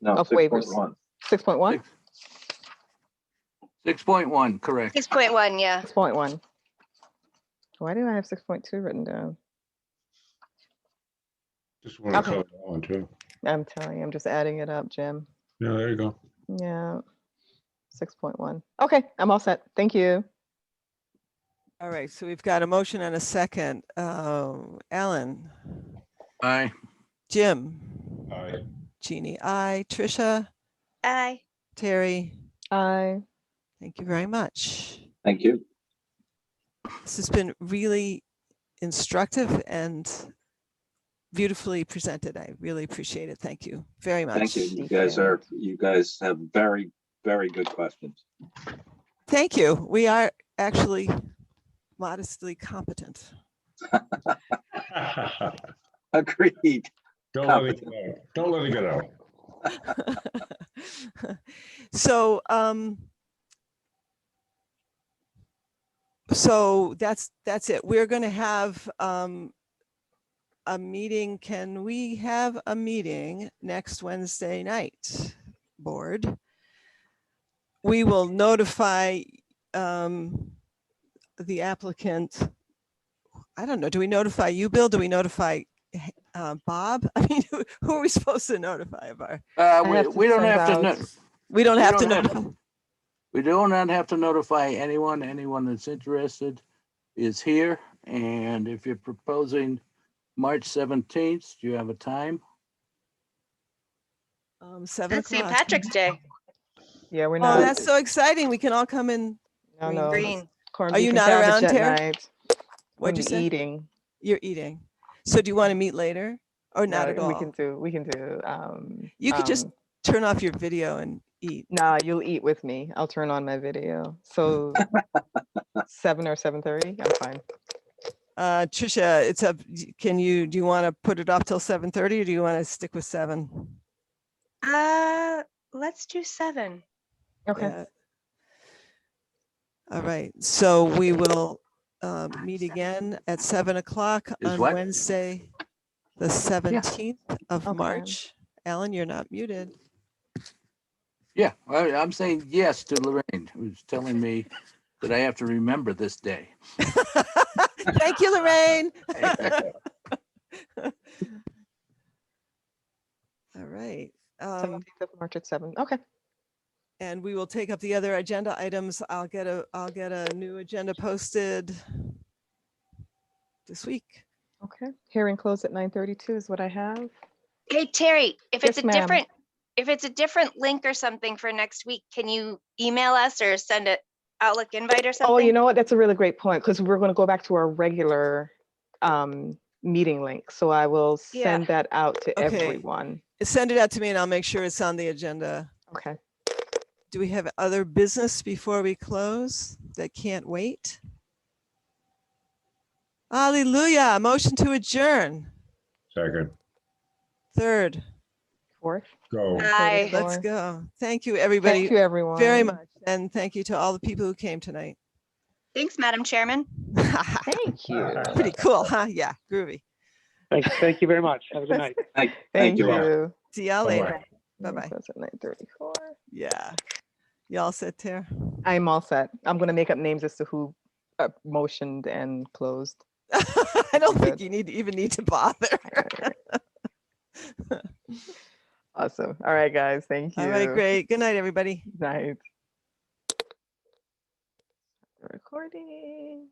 No, Of waivers. 6.1. 6.1, Six point one, correct. Six point one, yeah. 6.1. Why did I have 6.2 written down? Just want to Okay. cover that one too. I'm telling you, I'm just adding it up, Jim. Yeah, there you go. Yeah. 6.1. Okay, I'm all set. Thank you. All right, so we've got a motion and a second. Um, Alan, Aye. Jim, All right. Jeannie, I, Trisha, Aye. Terry, I thank you very much. Thank you. This has been really instructive and beautifully presented. I really appreciate it. Thank you very much. Thank you. You Thank guys you. are, you guys have very, very good questions. Thank you. We are actually modestly competent. Agreed. Don't let it get out. Don't let it get out. So, um, so that's, that's it. We're going to have, um, a meeting. Can we have a meeting next Wednesday night, board? We will notify, um, the applicant. I don't know. Do we notify you, Bill? Do we notify, uh, Bob? I mean, who- who are we supposed to notify of our? Uh, I we, have to we don't send have to, out- no- We don't We have to don't have know. we do not have to notify anyone. Anyone that's interested is here. And if you're proposing March seventeenth, do you have a time? Um, seven That's St. o'clock. Patrick's Day. Yeah, we're Oh, not. that's so exciting. We can all come in. No, green. no. Green. Corn Are beef you and not cabbage around, at Terry? night. What'd you Wouldn't be say? Eating. You're eating. So do you want to meet later or not No, at all? uh, We can do, we can do, um. You could just um, turn off your video and eat. Nah, you'll eat with me. I'll turn on my video. So seven or seven thirty, I'm fine. Uh, Tricia, it's up. y- Can you, do you want to put it off till seven thirty or do you want to stick with seven? Uh, let's do seven. Okay. Yeah. All right. So we will, uh, meet again at seven o'clock Is on what? Wednesday, the seventeenth of Okay. March. Alan, you're not muted. Yeah, I, I'm saying yes to Lorraine, who's telling me that I have to remember this day. Thank you, Lorraine. All right. Um, Seventeenth of March at seven. Okay. and we will take up the other agenda items. I'll get a, I'll get a new agenda posted this week. Okay. Hearing closed at nine thirty-two is what I have. Hey, Terry, if it's Yes, a ma'am. different, if it's a different link or something for next week, can you email us or send a Outlook invite or something? Oh, you know what? That's a really great point because we're going to go back to our regular um, meeting link. So I will Yeah. send that out to Okay. everyone. Send it out to me and I'll make sure it's on the agenda. Okay. Do we have other business before we close that can't wait? Hallelujah. Motion to adjourn. Second, Third, Fourth. go. Uh, Aye. let's Sure. go. Thank you, everybody. Thank you, everyone. very much. And thank you to all the people who came tonight. Thanks, Madam Chairman. Thank you. Pretty cool, huh? Yeah, groovy. Thank, thank you very much. Have a good night. Thank, Thank thank you. you. all. Hearing See y'all Bye-bye. later. Bye-bye. Closed at nine thirty-four. Yeah. Y'all sit there. I'm all set. I'm going to make up names as to who uh, motioned and closed. I don't think Good. you need, even need to bother. Awesome. All right, guys. Thank you. All right, great. Good night, everybody. Night. Recording.